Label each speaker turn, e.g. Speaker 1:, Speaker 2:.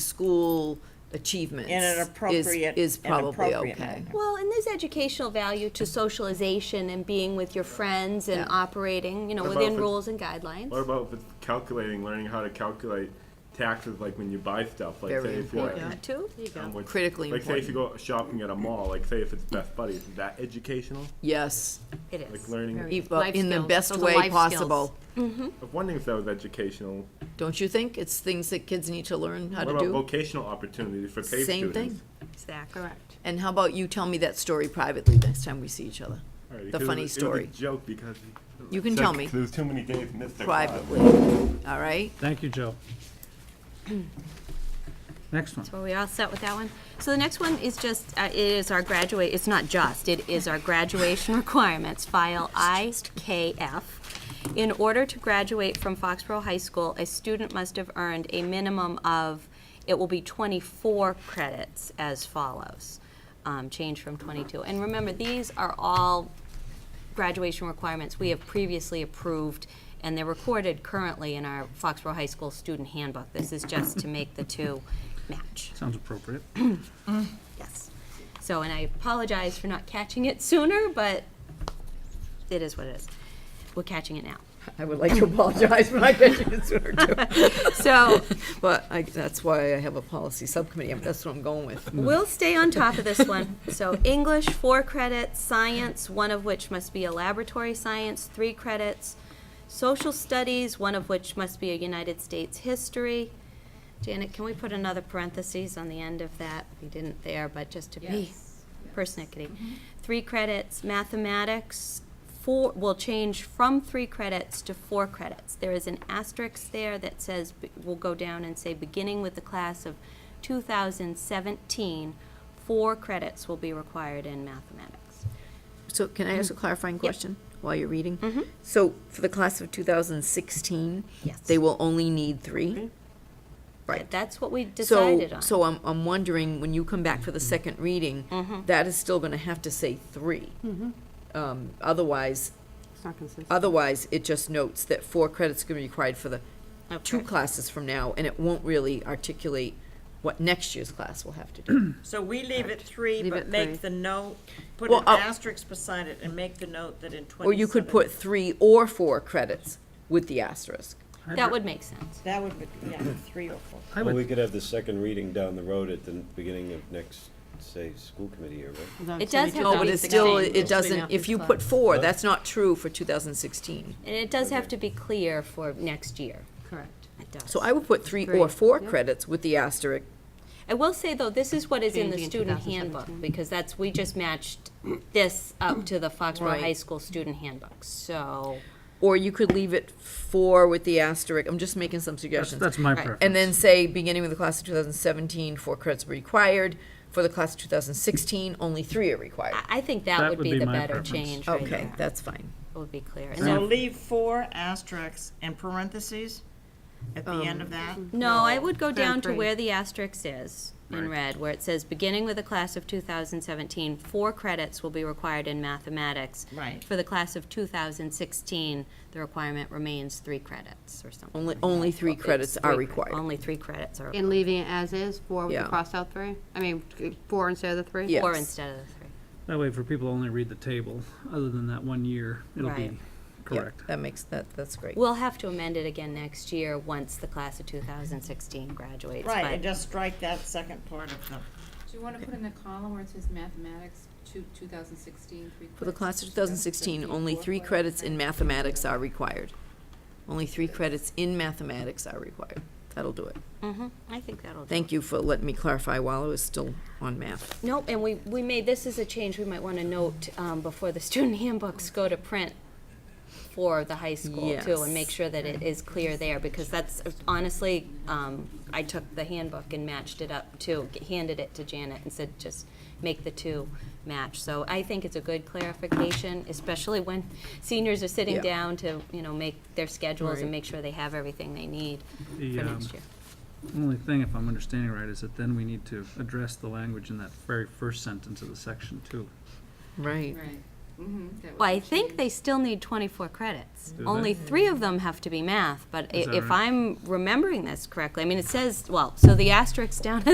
Speaker 1: school achievements
Speaker 2: In an
Speaker 1: is-
Speaker 2: appropriate-
Speaker 1: is
Speaker 2: an
Speaker 1: probably
Speaker 2: appropriate
Speaker 1: okay.
Speaker 2: manner.
Speaker 3: Well, and there's educational value to socialization and being with your friends and operating, you know,
Speaker 4: What about
Speaker 3: within
Speaker 4: if it-
Speaker 3: rules and guidelines.
Speaker 4: What about if it's calculating, learning how to calculate taxes, like when you buy stuff, like
Speaker 1: Very
Speaker 4: say if you're.
Speaker 1: important.
Speaker 3: That too?
Speaker 4: um, which-
Speaker 1: Critically
Speaker 4: Like say if you go shopping at a mall, like say if it's Best Buddies, is that educational?
Speaker 1: Yes,
Speaker 5: It
Speaker 4: Like
Speaker 5: is.
Speaker 4: learning,
Speaker 1: Eva,
Speaker 5: Life
Speaker 1: in the
Speaker 5: skills.
Speaker 1: best
Speaker 5: Those are
Speaker 1: way
Speaker 5: life skills.
Speaker 1: possible.
Speaker 4: I'm wondering if that was educational.
Speaker 1: Don't you think? It's things that kids need to learn how
Speaker 4: What
Speaker 1: to
Speaker 4: about
Speaker 1: do.
Speaker 4: vocational opportunities for paid
Speaker 1: Same
Speaker 4: students?
Speaker 1: thing.
Speaker 5: Exactly. Correct.
Speaker 1: And how about you tell me that story privately next time we see each other?
Speaker 4: Alright,
Speaker 1: The
Speaker 4: because it
Speaker 1: funny
Speaker 4: was- It
Speaker 1: story,
Speaker 4: was a joke because.
Speaker 1: You can
Speaker 4: so-
Speaker 1: tell me.
Speaker 4: There was too many days missed. that class.
Speaker 1: privately, all right?
Speaker 6: Thank you, Joe. Next one.
Speaker 5: Were we all set with that one? So the next one is just, uh, it is our graduate, it's not just, it is our graduation requirements, file IKF. In order to graduate from Foxborough High School, a student must have earned a minimum of, it will be 24 credits as follows, um, change from 22. And remember, these are all graduation requirements we have previously approved, and they're recorded currently in our Foxborough High School student handbook. This is just to make the two match.
Speaker 6: Sounds appropriate.
Speaker 5: Yes. So, and I apologize for not catching it sooner, but it is what it is. We're catching it now.
Speaker 1: I would like to apologize for not catching it sooner, too.
Speaker 5: So,
Speaker 1: But I, that's why I have a policy subcommittee, that's what I'm going with.
Speaker 5: We'll stay on top of this one. So English, four credits, science, one of which must be a laboratory science, three credits, social studies, one of which must be a United States history. Janet, can we put another parentheses on the end of that? We didn't there, but just to be persnickety. Three credits, mathematics, four, will change from three credits to four credits. There is an asterisk there that says, be- we'll go down and say, beginning with the class of 2017, four credits will be required in mathematics.
Speaker 1: So can I ask
Speaker 5: Mm-hmm.
Speaker 1: a clarifying question while you're reading? So for the class of 2016?
Speaker 5: Yes.
Speaker 1: They will only need three? Right.
Speaker 5: That's what we
Speaker 1: So,
Speaker 5: decided on.
Speaker 1: so I'm, I'm wondering, when you come back for the second reading,
Speaker 5: Mm-hmm.
Speaker 1: that is still gonna have to say three. Um, otherwise, otherwise, it just notes that four credits are gonna be required for the two
Speaker 5: Okay.
Speaker 1: classes from now, and it won't really articulate what next year's class will have to do.
Speaker 2: So we leave it three,
Speaker 7: Leave
Speaker 2: but
Speaker 7: it three.
Speaker 2: make the note, put
Speaker 1: Well,
Speaker 2: an
Speaker 1: I'll-
Speaker 2: asterisk beside it and make the note that in twenty.
Speaker 1: Or you could put three or four credits with the asterisk.
Speaker 5: That would make sense.
Speaker 2: That would be, yeah, three or four.
Speaker 6: I
Speaker 8: Well, we
Speaker 6: would,
Speaker 8: could have the second reading down the road at the beginning of next, say, school committee year, right?
Speaker 7: No,
Speaker 5: It
Speaker 7: so we
Speaker 5: does
Speaker 7: do
Speaker 5: have
Speaker 1: No,
Speaker 5: to
Speaker 7: that.
Speaker 1: but
Speaker 5: be
Speaker 1: it's still,
Speaker 5: 16.
Speaker 1: it doesn't, if you put four, that's not true for 2016.
Speaker 5: And it does have to be clear for next year.
Speaker 7: Correct.
Speaker 5: It does.
Speaker 1: So I would put three or
Speaker 7: Three,
Speaker 1: four credits with the asterisk
Speaker 5: I will say, though, this is what is in the
Speaker 7: Changing in
Speaker 5: student handbook,
Speaker 7: 2017.
Speaker 5: because that's, we just matched this up to the Foxborough High
Speaker 1: Right.
Speaker 5: School student handbook, so.
Speaker 1: Or you could leave it four with the asterisk. I'm just making some
Speaker 6: that's,
Speaker 1: suggestions.
Speaker 6: that's my
Speaker 5: Right.
Speaker 6: preference.
Speaker 1: and then say, beginning with the class of 2017, four credits were required. For the class of 2016, only three are required.
Speaker 5: I, I think that
Speaker 6: That
Speaker 5: would
Speaker 6: would
Speaker 5: be
Speaker 6: be
Speaker 5: the
Speaker 6: my
Speaker 5: better
Speaker 6: preference.
Speaker 5: change right
Speaker 1: Okay,
Speaker 5: there.
Speaker 1: that's fine.
Speaker 5: It would be clear. And
Speaker 2: So
Speaker 5: then-
Speaker 2: leave four asterisks and parentheses at
Speaker 1: Um,
Speaker 2: the end of that.
Speaker 5: No, I would go down to
Speaker 7: three.
Speaker 5: where the asterisk is in red, where it says, beginning with the class of 2017, four credits will be required in mathematics.
Speaker 2: Right.
Speaker 5: For the class of 2016, the requirement remains three credits or something.
Speaker 1: Only,
Speaker 5: like
Speaker 1: only
Speaker 5: that.
Speaker 1: three
Speaker 5: It's
Speaker 1: credits are
Speaker 5: three-
Speaker 1: required.
Speaker 5: Only three credits are,
Speaker 7: And leaving it as is, four with the
Speaker 1: Yeah.
Speaker 7: crossed out three? I mean, four instead of the three?
Speaker 1: Yeah.
Speaker 5: four
Speaker 1: yes.
Speaker 5: instead of the three.
Speaker 6: That way, for people who only read the table, other than that one year, it'll
Speaker 5: Right.
Speaker 6: be
Speaker 1: Yeah,
Speaker 6: correct.
Speaker 1: That makes, that, that's great.
Speaker 5: We'll have to amend it again next year, once the class of 2016 graduates.
Speaker 2: Right,
Speaker 5: but-
Speaker 2: and just strike that second part of the,
Speaker 9: Do you want to put in the column where it says mathematics, two, two thousand sixteen, three credits?
Speaker 1: For the class of 2016, only three credits in mathematics are required. Only three credits in mathematics are required. That'll do it.
Speaker 5: Mhm, I think that'll do it.
Speaker 1: Thank you for letting me clarify while I was still on math.
Speaker 5: Nope, and we, we made, this is a change we might want to note um, before the student handbooks go to print for the high school too, and make
Speaker 1: Yes.
Speaker 5: sure that it is clear there, because that's, honestly, um, I took the handbook and matched it up too, g- handed it to Janet and said, just make the two match. So I think it's a good clarification, especially when seniors are sitting
Speaker 1: Yeah.
Speaker 5: down to, you know, make their schedules and
Speaker 1: Right.
Speaker 5: make sure they have everything they need
Speaker 6: The,
Speaker 5: for
Speaker 6: um,
Speaker 5: next year.
Speaker 6: Only thing, if I'm understanding right, is that then we need to address the language in that very first sentence of the section too.
Speaker 1: Right.
Speaker 9: Right. Mm-hmm, that was.
Speaker 5: Well, I
Speaker 9: the
Speaker 5: think
Speaker 9: change.
Speaker 5: they still need 24 credits.
Speaker 6: Do they?
Speaker 5: Only three of them have to be math, but i-
Speaker 6: Is that
Speaker 5: if
Speaker 6: right?
Speaker 5: I'm remembering this correctly, I mean, it says, well, so the asterisk down at